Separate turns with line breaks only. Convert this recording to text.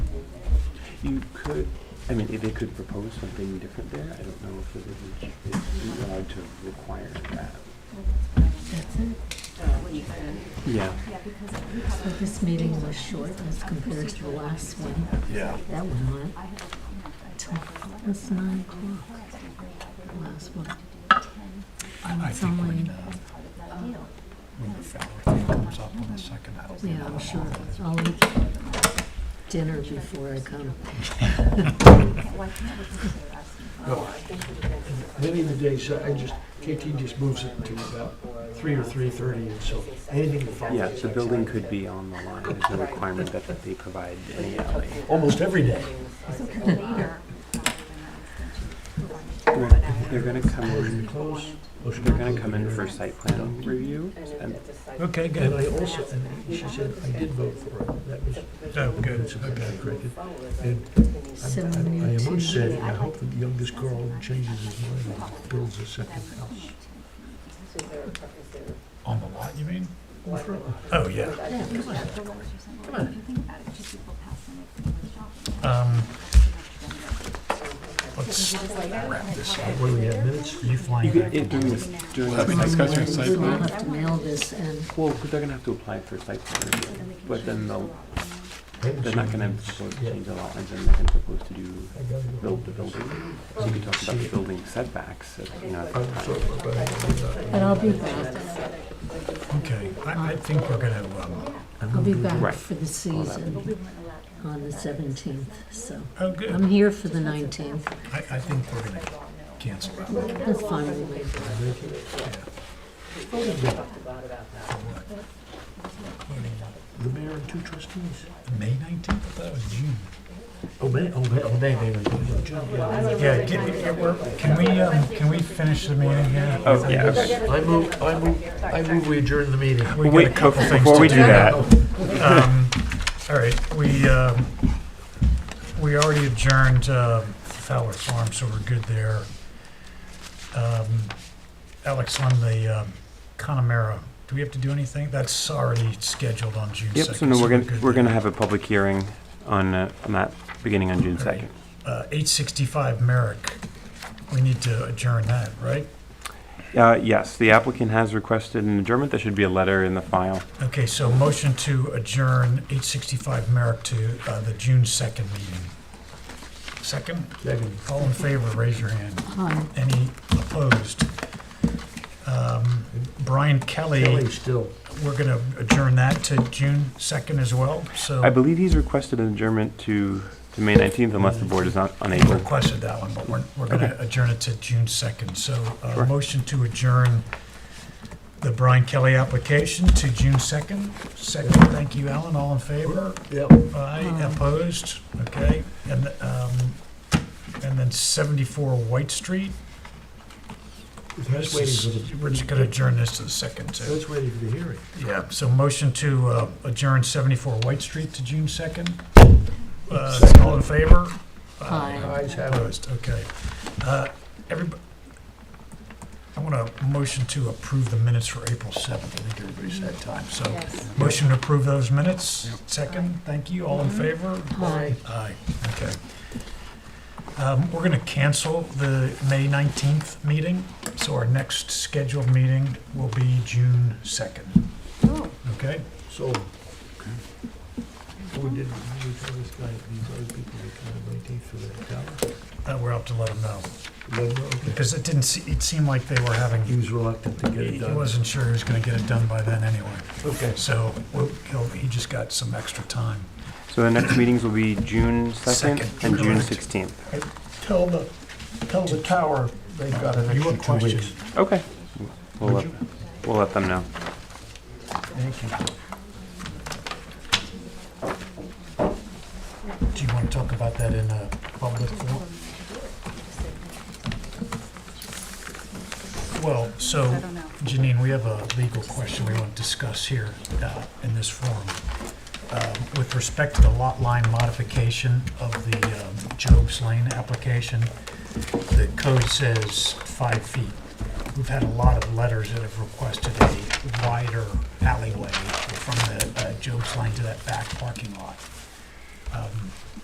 you could, I mean, if they could propose something different there, I don't know if the village is allowed to require that.
That's it.
Yeah.
So this meeting was short as compared to the last one.
Yeah.
That one went till almost nine o'clock, the last one. And
I
it's
think
only,
when, uh, when the Fowler thing comes up on the second, that'll be
yeah,
another
I'm sure,
one.
I'll eat dinner before I come.
Many of the days, I just, KT just moves it to about three or three thirty, and so anything that follows.
Yeah, the building could be on the line, there's no requirement that that they provide any alley.
Almost every day.
They're gonna come in,
Close. Motion to
they're gonna come in for site plan review, and
Okay,
And I
good.
also, and she said, I did vote for it, that was.
Oh, good, okay.
corrected. And
So
I
we need
am upset, and I
to,
hope that the youngest girl changes his mind and builds a second house.
On the lot, you mean?
Well, for-
Oh, yeah.
Come on,
Um, let's wrap this up.
what do we have, minutes?
Are you
you
flying
could,
back?
it, during this, during the
Having
site plan
discussion site
so I'll
plan.
have to mail this and
Well, they're gonna have to apply for site plan review, but then they'll, they're not gonna propose to change the lot lines, and they're gonna propose to do, build the building. So you could talk about the building setbacks, at, you know, at the time.
But I'll be back.
Okay, I, I think we're gonna, um,
I'll be
Right.
back for the season on the 17th, so.
oh, good.
I'm here for the 19th.
I, I think we're gonna cancel that one.
That's fine with me.
The mayor and two trustees.
May nineteenth, I thought it was June.
Oh, man, oh, man, oh, they, they were doing
Yeah, can, can we, um, can we finish the meeting here?
Oh, yeah, okay.
I move, I move, I move we adjourn the meeting.
We got a
Wait,
couple things
before
to
we do that,
Um, All right, we, um, we already adjourned um, Fowler Farm, so we're good there. Um, Alex, on the um, Connemara, do we have to do anything? That's already scheduled on June 2nd.
Yep, so no, we're gonna,
good
we're gonna
there.
have a public hearing on, uh, on that, beginning on June
Alright.
second.
Uh, 865 Merrick, we need to adjourn that, right?
Uh, yes, the applicant has requested an adjournment, there should be a letter in the file.
Okay, so motion to adjourn 865 Merrick to uh, the June 2nd meeting. Second?
Second.
All in favor, raise your hand.
Hi.
Any opposed? Um, Brian Kelly,
Kelly still.
we're going to adjourn that to June 2nd as well,
I
so
believe he's requested an adjournment to, to May nineteenth unless the board is not
he
unable.
requested that one, but we're, we're going to adjourn it to June 2nd. So uh
Sure.
motion to adjourn the Brian Kelly application to June 2nd. Second, thank you, Alan, all in favor?
Yep.
Aye,
Aye.
opposed, okay. And, um, and then 74 White Street.
That's waiting for the.
We're just gonna adjourn this to the second, too.
That's waiting for the hearing.
Yeah, so motion to uh, adjourn 74 White Street to June 2nd. Uh,
Second.
All in favor?
Aye.
Eyes have it.
Opposed, okay. Everybody, I want a motion to approve the minutes for April 7th. I think everybody's had time, so. Motion to approve those minutes. Second, thank you, all in favor?
Hi.
Aye, okay. Um, We're going to cancel the May 19th meeting, so our next scheduled meeting will be June 2nd. Okay?
So. We did, we tell this guy, these other people, they come in nineteenth for that tower.
Uh, We're out to let them know,
Remember, okay.
because it didn't, se- it seemed like they were
He
having,
was reluctant to get
he
it
he
done.
wasn't sure he was going to get it done by then anyway.
Okay.
So we'll- he'll- he just got some extra time.
So the next meetings will be June second
Second,
and June
correct.
sixteenth.
Tell the, tell the tower they've got an
You
extra
have
two
questions?
weeks.
Okay. We'll let, we'll let them know.
Thank you.
Do you want to talk about that in uh, public forum? Well, so, Janine, we have a legal question we want to discuss here uh, in this forum. Um, With respect to the lot line modification of the um, Job's Lane application, the code says five feet. We've had a lot of letters that have requested a wider alleyway from the uh, Job's Lane to that back parking lot. Um,